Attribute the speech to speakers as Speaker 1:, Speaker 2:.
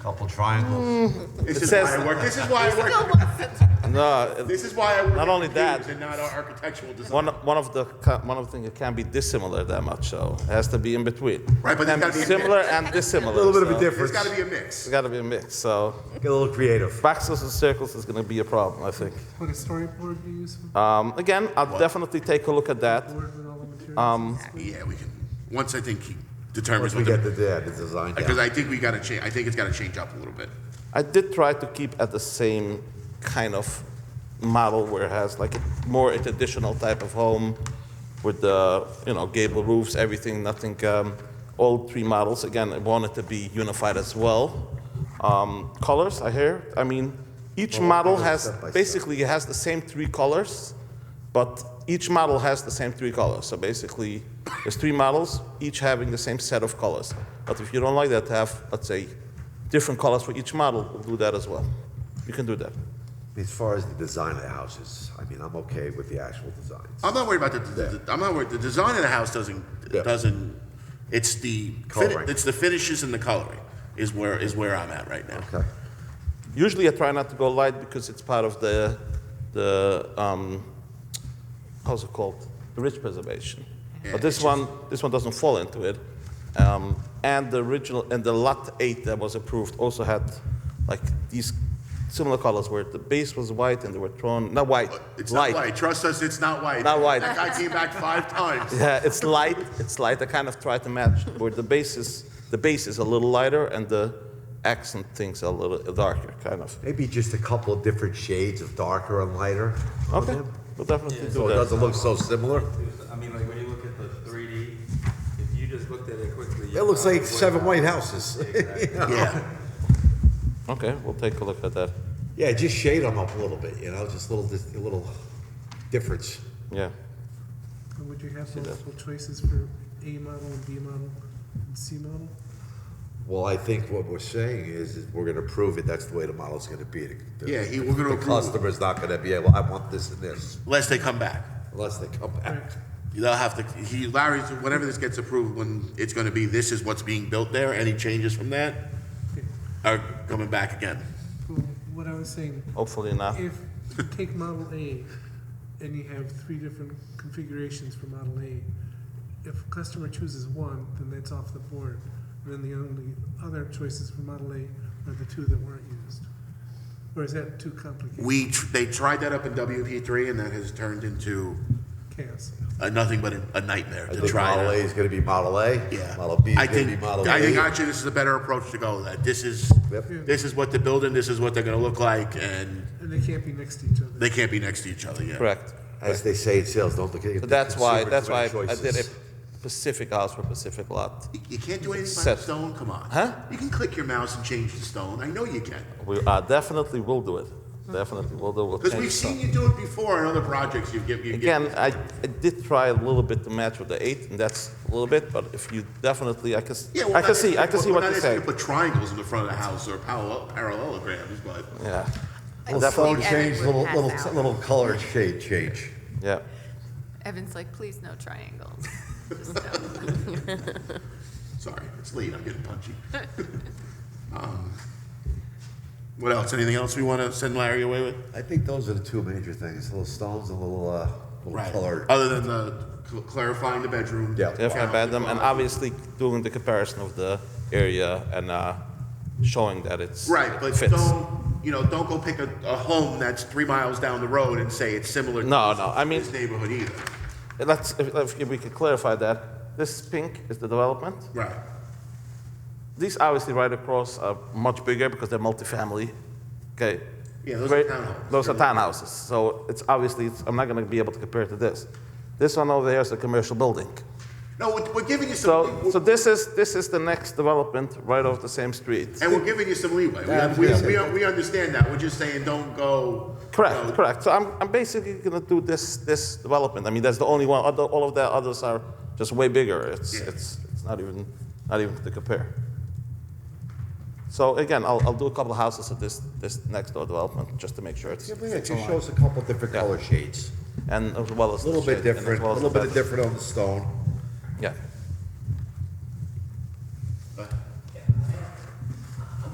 Speaker 1: Couple triangles.
Speaker 2: This is
Speaker 3: It
Speaker 2: why
Speaker 3: says-
Speaker 2: I work, this is why I work,
Speaker 3: No,
Speaker 2: this is why I work.
Speaker 3: Not
Speaker 2: in
Speaker 3: only that-
Speaker 2: computers And not our architectural design.
Speaker 3: one, one of the co- one of the things it can't be dissimilar that much, so it has to be in between.
Speaker 2: Right, but
Speaker 3: Can
Speaker 2: it's gotta be a
Speaker 3: similar
Speaker 2: mix.
Speaker 3: and dissimilar.
Speaker 4: A little bit of a
Speaker 3: so
Speaker 4: difference.
Speaker 2: There's gotta be a
Speaker 3: It's
Speaker 2: mix.
Speaker 3: got to be a mix. So
Speaker 4: Get a little creative.
Speaker 3: boxes and circles is going to be a problem, I think.
Speaker 5: Would a storyboard be useful?
Speaker 3: Um, again, I'll definitely take a look at that.
Speaker 5: Board with all the materials?
Speaker 2: Yeah, we can, once I think he determines
Speaker 4: Once we
Speaker 2: what
Speaker 4: get the,
Speaker 2: the,
Speaker 4: yeah, the design
Speaker 2: because
Speaker 4: down.
Speaker 2: I think we gotta change, I think it's gotta change up a little bit.
Speaker 3: I did try to keep at the same kind of model where it has like more a traditional type of home with the, you know, gable roofs, everything, nothing, um, all three models. Again, I wanted to be unified as well. Um, colors, I hear, I mean, each model
Speaker 4: go
Speaker 3: has,
Speaker 4: step by step.
Speaker 3: basically it has the same three colors, but each model has the same three colors. So basically, there's three models, each having the same set of colors. But if you don't like that, have, let's say, different colors for each model, we'll do that as well. You can do that.
Speaker 4: As far as the design of the houses, I mean, I'm okay with the actual designs.
Speaker 2: I'm not worried about the, the- the- I'm not worried, the design of the house doesn't,
Speaker 4: Yeah.
Speaker 2: doesn't, it's the, fin-
Speaker 4: Coloring.
Speaker 2: it's the finishes and the coloring is where, is where I'm at right now.
Speaker 4: Okay.
Speaker 3: Usually, I try not to go light because it's part of the, the um, how's it called, the ridge preservation.
Speaker 2: Yeah,
Speaker 3: but this
Speaker 2: it's
Speaker 3: one, this one doesn't fall into it. Um, and the original and the lot eight that was approved also had like these similar colors where the base was white and they were thrown not white,
Speaker 2: It's
Speaker 3: light.
Speaker 2: not white, trust us, it's not white.
Speaker 3: Not white.
Speaker 2: That guy came back five times.
Speaker 3: Yeah, it's light. It's light. I kind of try to match where the base is. The base is a little lighter and the accent things are a little darker, kind of.
Speaker 4: Maybe just a couple of different shades of darker and lighter on
Speaker 3: Okay,
Speaker 4: them.
Speaker 3: we'll definitely do that.
Speaker 4: So it doesn't look so similar.
Speaker 6: I mean, like when you look at the 3D, if you just looked at it quickly.
Speaker 4: It looks like seven white houses.
Speaker 2: Yeah.
Speaker 3: Okay, we'll take a look at that.
Speaker 4: Yeah, just shade them up a little bit, you know, just little, just a little difference.
Speaker 3: Yeah.
Speaker 5: Or would you have multiple choices for A model and B model and C model?
Speaker 4: Well, I think what we're saying is, is we're gonna prove it, that's the way the model's gonna be. The-
Speaker 2: Yeah, he- we're gonna
Speaker 4: The
Speaker 2: approve it.
Speaker 4: customer's not gonna be able, I want this and this,
Speaker 2: Unless they come back.
Speaker 4: unless they come back.
Speaker 2: They'll have to, he, Larry's, whenever this gets approved, when it's gonna be, this is what's being built there, any changes from that are coming back again.
Speaker 5: Well, What I was saying,
Speaker 3: Hopefully not.
Speaker 5: if, you take model A and you have three different configurations for model A, if a customer chooses one, then that's off the board. And then the only other choices for model A are the two that weren't used. Or is that too complicated?
Speaker 2: We, tr- they tried that up in WP three and that has turned into
Speaker 5: Chaos.
Speaker 2: a nothing but a- a nightmare
Speaker 4: I
Speaker 2: to
Speaker 4: think
Speaker 2: try. it
Speaker 4: Model A
Speaker 2: out.
Speaker 4: is gonna be Model A.
Speaker 2: Yeah.
Speaker 4: Model B is
Speaker 2: I
Speaker 4: gonna be
Speaker 2: think-
Speaker 4: Model B.
Speaker 2: I think actually this is a better approach to go, that this is,
Speaker 4: Yep.
Speaker 2: this is what they're building, this is what they're gonna look like, and
Speaker 5: And they can't be next to each other.
Speaker 2: they can't be next to each other, yeah.
Speaker 3: Correct.
Speaker 4: As they say in sales, don't look at your
Speaker 3: But that's why,
Speaker 4: consumer,
Speaker 3: that's
Speaker 4: too
Speaker 3: why
Speaker 4: many
Speaker 3: I did a
Speaker 4: choices.
Speaker 3: specific house for Pacific lot.
Speaker 2: You- You can't do anything by
Speaker 3: Set.
Speaker 2: the stone, come on.
Speaker 3: Huh?
Speaker 2: You can click your mouse and change the stone, I know you can.
Speaker 3: We uh, definitely will do it. Definitely will do it. We'll
Speaker 2: Because
Speaker 3: change
Speaker 2: we've
Speaker 3: some.
Speaker 2: seen you do it before in other projects you've given.
Speaker 3: Again, I, I did try a little bit to match with the eight, and that's a little bit, but if you definitely, I can, s-
Speaker 2: Yeah, well,
Speaker 3: I can
Speaker 2: not-
Speaker 3: see, I can see
Speaker 2: we're
Speaker 3: what
Speaker 2: not
Speaker 3: you're
Speaker 2: asking
Speaker 3: saying.
Speaker 2: to Put triangles in the front of the house or parallel- parallelograms, but
Speaker 3: Yeah,
Speaker 4: Little
Speaker 3: Definitely.
Speaker 4: phone change,
Speaker 7: Everyone
Speaker 4: little,
Speaker 7: has
Speaker 4: little,
Speaker 7: that.
Speaker 4: little color shade change.
Speaker 3: yeah.
Speaker 7: Evan's like, please no triangles. Just no.
Speaker 2: sorry, it's late. I'm getting punchy. um, what else? Anything else we want to send Larry away with?
Speaker 4: I think those are the two major things, little stones and little, uh, little color.
Speaker 2: Other than the cl- clarifying the bedroom.
Speaker 4: Yeah.
Speaker 3: Definitely about them, and obviously doing the comparison of the area and uh, showing that it's
Speaker 2: Right, but
Speaker 3: fits.
Speaker 2: don't you know? Don't go pick a, a home that's three miles down the road and say it's similar.
Speaker 3: No,
Speaker 2: to
Speaker 3: no, I mean-
Speaker 2: this neighborhood either.
Speaker 3: Let's, if, if we could clarify that, this pink is the development.
Speaker 2: Right.
Speaker 3: These obviously right across are much bigger because they're multifamily. Okay.
Speaker 2: Yeah, those are
Speaker 3: Right-
Speaker 2: townhouses.
Speaker 3: Those are townhouses. So it's obviously, it's, I'm not going to be able to compare it to this. This one over there is a commercial building.
Speaker 2: No, we're, we're giving you some.
Speaker 3: So, so this is this is the next development right off the same street.
Speaker 2: And we're giving you some leeway.
Speaker 4: Yeah,
Speaker 2: We,
Speaker 4: yeah.
Speaker 2: we, we, we understand that. We're just saying, don't go.
Speaker 3: Correct,
Speaker 2: you know,
Speaker 3: correct. So I'm, I'm basically going to do this this development. I mean, that's the only one. Other, all of the others are just way bigger. It's
Speaker 2: Yeah.
Speaker 3: it's it's not even not even to compare. So again, I'll, I'll do a couple of houses of this this next door development just to make sure it's,
Speaker 4: Yeah, but yeah, it
Speaker 3: it's
Speaker 4: just
Speaker 3: aligned.
Speaker 4: shows a couple different
Speaker 3: Yeah.
Speaker 4: color shades.
Speaker 3: and as well as
Speaker 4: A little
Speaker 3: the
Speaker 4: bit
Speaker 3: shade, and as
Speaker 4: different, a
Speaker 3: well as
Speaker 4: little
Speaker 3: the
Speaker 4: bit
Speaker 3: bed-
Speaker 4: different on the stone.
Speaker 3: Yeah.